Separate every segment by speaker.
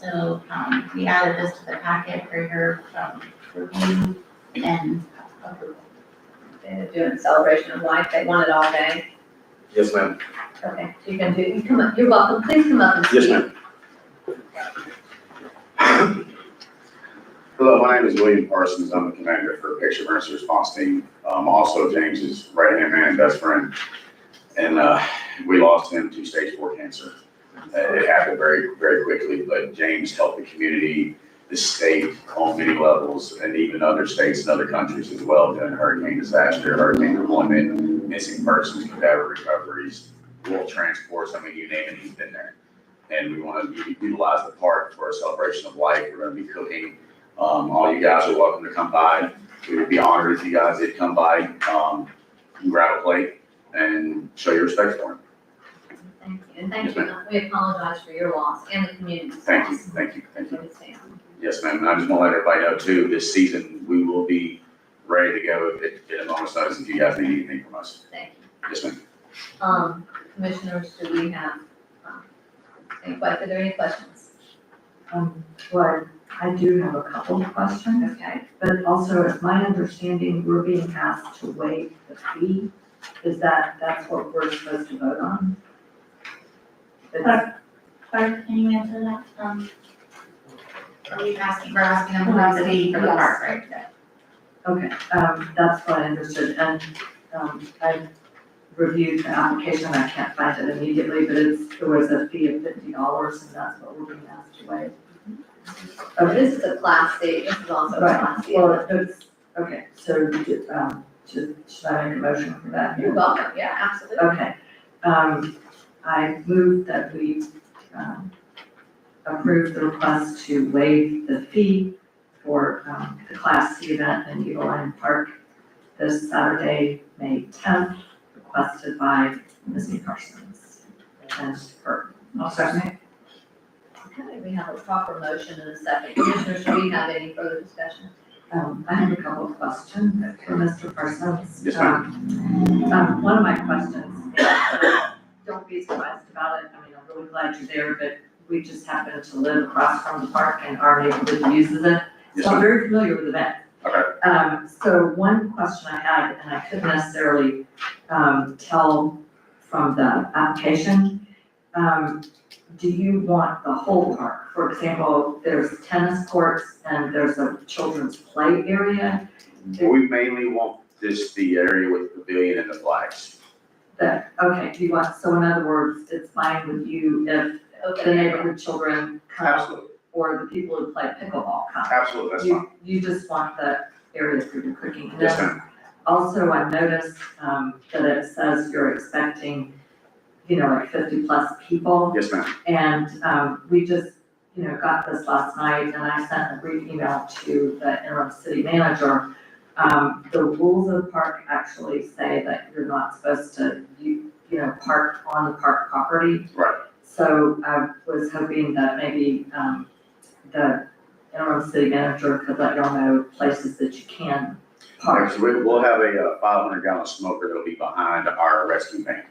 Speaker 1: So, um, we added this to the packet for your, um, review and approval.
Speaker 2: They're doing celebration of life, they want it all day.
Speaker 3: Yes, ma'am.
Speaker 2: Okay, you can do, you come up, you're welcome, please come up and speak.
Speaker 3: Yes, ma'am. Hello, my name is William Parsons. I'm the commander for Picture Emergency Response Team. Um, also James's right-hand man, best friend. And, uh, we lost him to stage four cancer. Uh, It happened very, very quickly, but James helped the community, the state on many levels and even other states and other countries as well during hurricane disaster, hurricane deployment, missing persons, cadaver recoveries, rural transports. I mean, you name it, he's been there. and we want to utilize the park for a celebration of life. We're going to be cooking. Um, all you guys are welcome to come by. We would be honored if you guys did come by, um, and grab a plate and show your respect for him.
Speaker 2: Thank you, and thank
Speaker 3: Yes,
Speaker 2: you, we apologize for your loss and the community's
Speaker 3: Thank you,
Speaker 2: loss.
Speaker 3: thank you, thank you.
Speaker 2: We understand.
Speaker 3: Yes, ma'am, and I just want to let everybody know too, this season, we will be ready to go at, at a moment's notice if you guys need anything from us.
Speaker 2: Thank you.
Speaker 3: Yes, ma'am.
Speaker 2: Um, commissioners, do we have, um, any que- are there any questions?
Speaker 4: Um, well, I do have a couple of questions,
Speaker 2: Okay,
Speaker 4: but also it's my understanding we're being asked to waive the fee. Is that, that's what we're supposed to vote on? It's-
Speaker 1: Clark, can you answer that? Um, are we asking, we're asking them about the fee for the park, right?
Speaker 4: Okay, um, that's what I understood, and, um, I reviewed the application, I can't find it immediately, but it's, there was a fee of fifty dollars, and that's what we're being asked to waive.
Speaker 2: so Oh, this is a class C, this is also a
Speaker 4: Right.
Speaker 2: class C.
Speaker 4: Well, it's, okay, so, um, should, should I make a motion for that?
Speaker 2: You're welcome, yeah, absolutely.
Speaker 4: Okay, um, I move that we, um, approve the request to waive the fee for, um, the Class C event in Eagle Lion Park this Saturday, May tenth, requested by Ms. Parsons and her.
Speaker 2: Okay, we have a proper motion and a second. Commissioners, do we have any further discussion?
Speaker 4: Um, I have a couple of questions for Mr. Parsons.
Speaker 3: Yes, ma'am.
Speaker 4: Um, um, one of my questions, uh, don't be surprised about it, I mean, I'm really glad you're there, but we just happen to live across from the park and our neighborhood uses it.
Speaker 3: Yes,
Speaker 4: So I'm
Speaker 3: ma'am.
Speaker 4: very familiar with the event.
Speaker 3: Okay.
Speaker 4: Um, so one question I had, and I couldn't necessarily, um, tell from the application, um, do you want the whole park? For example, there's tennis courts and there's a children's play area
Speaker 3: We mainly want this, the area with the pavilion and the flags.
Speaker 4: that, okay, do you want, so in other words, it's fine with you if the
Speaker 2: Okay,
Speaker 4: neighborhood children come
Speaker 3: Absolutely,
Speaker 4: or the people who play pickleball come?
Speaker 3: absolutely, that's fine.
Speaker 4: You, you just want the areas for your cooking. And
Speaker 3: Yes,
Speaker 4: then
Speaker 3: ma'am.
Speaker 4: Also, I noticed, um, that it says you're expecting, you know, like fifty plus people.
Speaker 3: Yes, ma'am.
Speaker 4: And, um, we just, you know, got this last night and I sent a brief email to the interim city manager. Um, the rules of the park actually say that you're not supposed to, you, you know, park on the park property.
Speaker 3: Right.
Speaker 4: So I was hoping that maybe, um, the interim city manager could let y'all know places that you can park.
Speaker 3: Alright, so we- we'll have a uh, five hundred gallon smoker that'll be behind our rescue van.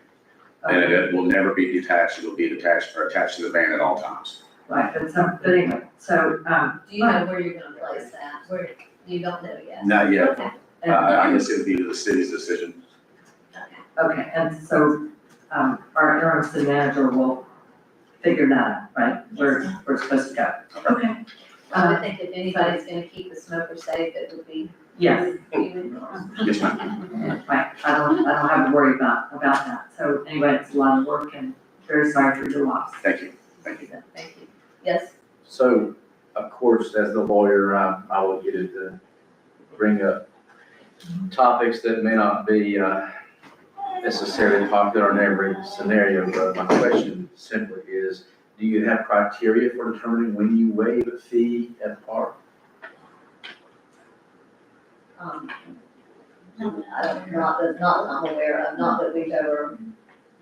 Speaker 3: And
Speaker 4: Okay.
Speaker 3: it will never be detached, it'll be detached or attached to the van at all times.
Speaker 4: Right, but some, but anyway, so, um,
Speaker 2: do you know where you're gonna place that? Where, you don't know yet?
Speaker 3: Not yet,
Speaker 2: Okay,
Speaker 3: uh,
Speaker 4: and-
Speaker 3: I guess it would be the city's decision.
Speaker 2: okay.
Speaker 4: okay, and so, um, our interim city manager will figure that out, right? Where, where it's supposed to go. Okay.
Speaker 2: I
Speaker 4: Uh,
Speaker 2: would think if anybody's gonna keep the smoker safe, it would be
Speaker 4: yes,
Speaker 2: you.
Speaker 3: Yes, ma'am.
Speaker 4: right, I don't, I don't have to worry about, about that, so anyway, it's a lot of work and very sorry for your loss.
Speaker 3: Thank you, thank you.
Speaker 2: Thank you. Yes,
Speaker 5: So, of course, as the lawyer, I, I will get it to bring up topics that may not be uh, necessarily popular in every scenario, but my question simply is, do you have criteria for determining when you waive a fee at the park?
Speaker 2: um, I don't, not that, not that I'm aware of, not that we've ever,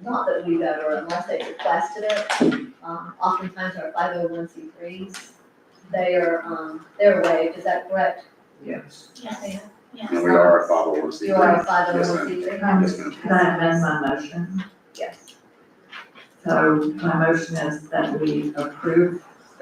Speaker 2: not that we've ever, unless they requested it. Um, oftentimes our five oh one C threes, they are, um, they're waived, is that correct?
Speaker 5: Yes.
Speaker 1: Yes, yes.
Speaker 3: And we are a five oh one C three.
Speaker 2: You are a five oh
Speaker 3: Yes,
Speaker 2: one
Speaker 3: ma'am.
Speaker 2: C three?
Speaker 4: Um,
Speaker 3: Yes, ma'am.
Speaker 4: Can I amend my motion?
Speaker 2: Yes.
Speaker 4: So my motion is that we approve